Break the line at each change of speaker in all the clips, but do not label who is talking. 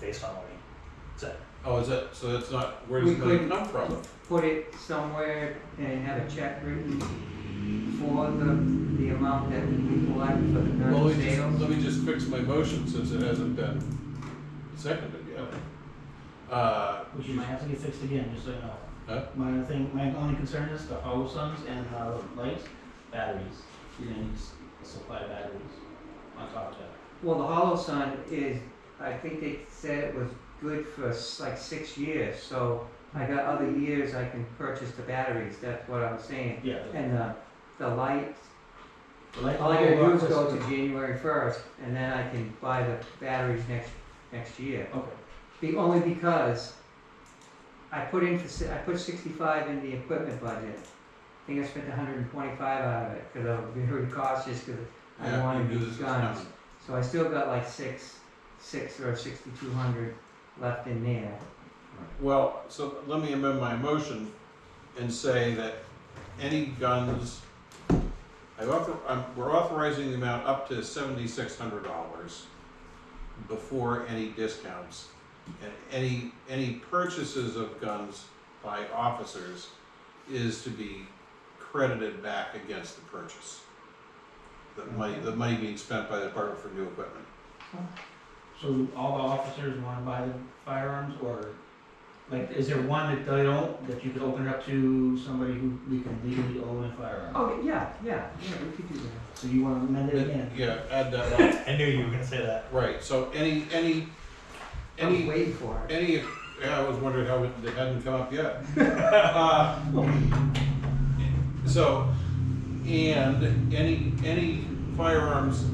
based on what he said.
Oh, is that, so that's not, where
We
does the money
could-
come from?
put it somewhere and have a check written for the, the amount that we collect for the
Well, let
current
me just,
sales.
let me just fix my motion since it hasn't been seconded yet. Uh,
Which you might have to get fixed again, just so you know.
Huh?
My thing, my only concern is the hollow suns and the lights, batteries. You're gonna need s- supply batteries on top of that.
Well, the hollow sun is, I think they said it was good for s- like six years, so I got other years I can purchase the batteries, that's what I'm saying.
Yeah, the-
And the, the lights,
the light.
all I gotta do is go to January first, and then I can buy the batteries next, next year.
Okay,
Be only because I put in for, si- I put sixty-five in the equipment budget. I think I spent hundred and twenty-five out of it, cause I was very cautious, cause I
yeah,
wanted
you do
these
this.
guns. So I still got like six, six or sixty-two hundred left in there.
Well, so let me amend my motion and say that any guns, I author, i we're authorizing the amount up to seventy-six hundred dollars before any discounts. And any, any purchases of guns by officers is to be credited back against the purchase. The money, the money being spent by the department for new equipment.
so all the officers wanna buy the firearms or, like, is there one that they don't, that you could open it up to somebody who we can legally own a firearm?
Oh, yeah, yeah, yeah, we could do that.
So you wanna amend it again?
Yeah, add that on.
I knew you were gonna say that.
Right, so any, any,
I was
any,
waiting for it.
any, yeah, I was wondering how it, it hadn't come up yet. Uh, So, and any, any firearms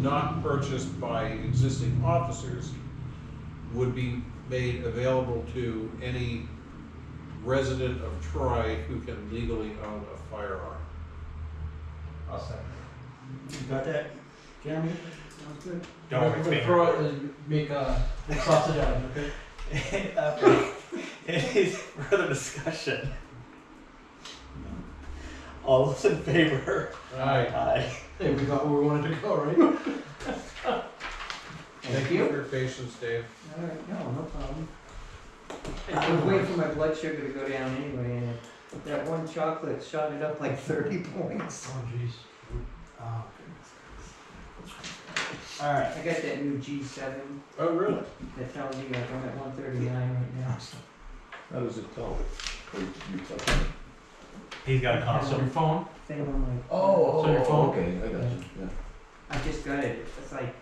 not purchased by existing officers would be made available to any resident of Troy who can legally own a firearm.
I'll second. You got that, Jeremy?
Sounds good.
Don't worry, it's me.
Throw it and make a sausage out of it, okay?
Uh, for- Any further discussion? All those in favor?
Alright,
Aye.
Hey, we got where we wanted to go, right?
thank you for your patience, Dave.
All right, no, no problem. I was waiting for my blood sugar to go down anyway, and that one chocolate shot it up like thirty points.
Oh, jeez.
Oh, goodness. All right.
I got that new G seven
Oh, really?
that tells you like I'm at one thirty nine right now.
How does it tell? Or you tell?
He's got a
So your
console.
phone?
Thing on my.
Oh,
So your phone-
okay, I got you, yeah.
I just got it. It's like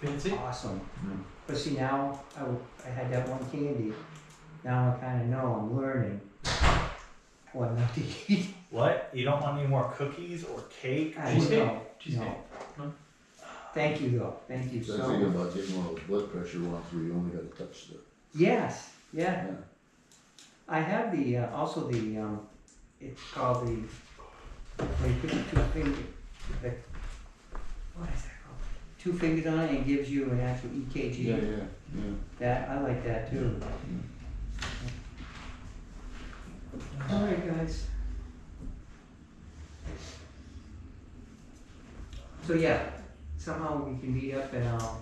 Fancy?
awesome.
Hmm.
But see now I, w- I had that one candy. Now I kind of know. I'm learning what not to eat.
What? You don't want any more cookies or cake?
I
Cheesecake?
know.
Cheesecake?
No.
No?
Thank you though. Thank you
Says
so.
here
much.
about getting all the blood pressure ones where you only gotta touch the,
Yes. Yeah.
yeah.
I have the, uh, also the, um, it's called the, where you put the two finger, the, what is that called? Two fingers on it and it gives you an actual
Yeah,
EKG.
yeah, yeah.
That, I like that too. All right, guys. So yeah, somehow we can meet up and I'll,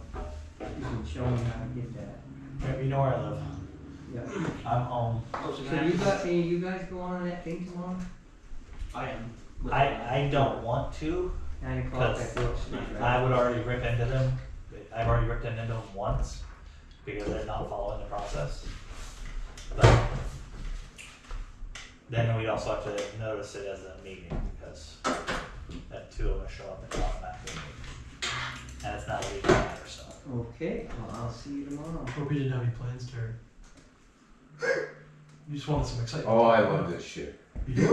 you can show me how to get that.
You know where I live.
Yeah.
I'm home.
So you got, any you guys go on that thing tomorrow?
I am.
I, I don't want to.
Nine o'clock
That's-
at Brook Street, right?
I would already rip into them. I've already ripped into them once because they're not following the process. But then we'd also have to notice it as a meeting because that two of us show up at automatically. And it's not a legal matter, so.
Okay, well, I'll see you tomorrow.
Hope you didn't have any plans, Terry. You just wanted some excitement.
Oh, I love this shit.
You do?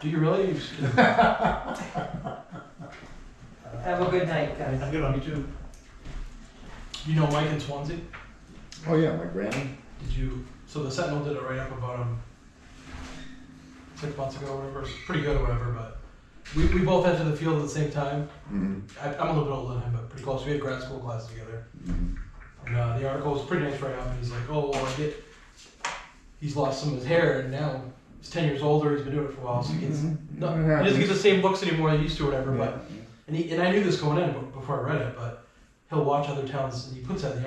Do you really? You just-
Have a good night, guys.
Have a good one.
You do? You know Mike in Swansea?
Oh, yeah, my granny.
Did you, so the Sentinel did a write-up about him six months ago or whatever, It's pretty good or whatever, but we, we both entered the field at the same time.
Mm-hmm,
I, I'm a little bit older than him, but pretty close. We had grad school classes together.
mm-hmm.
And uh, the article was pretty nice write-up, and he's like, oh, well, I get, he's lost some of his hair, and now he's 10 years older, he's been doing it for a while, so he gets,
Mm-hmm.
no, Mm-hmm. he doesn't get the same looks anymore he used to or whatever, but, and, he, and I knew this going in before I read it, but he'll watch other towns, and he puts that in the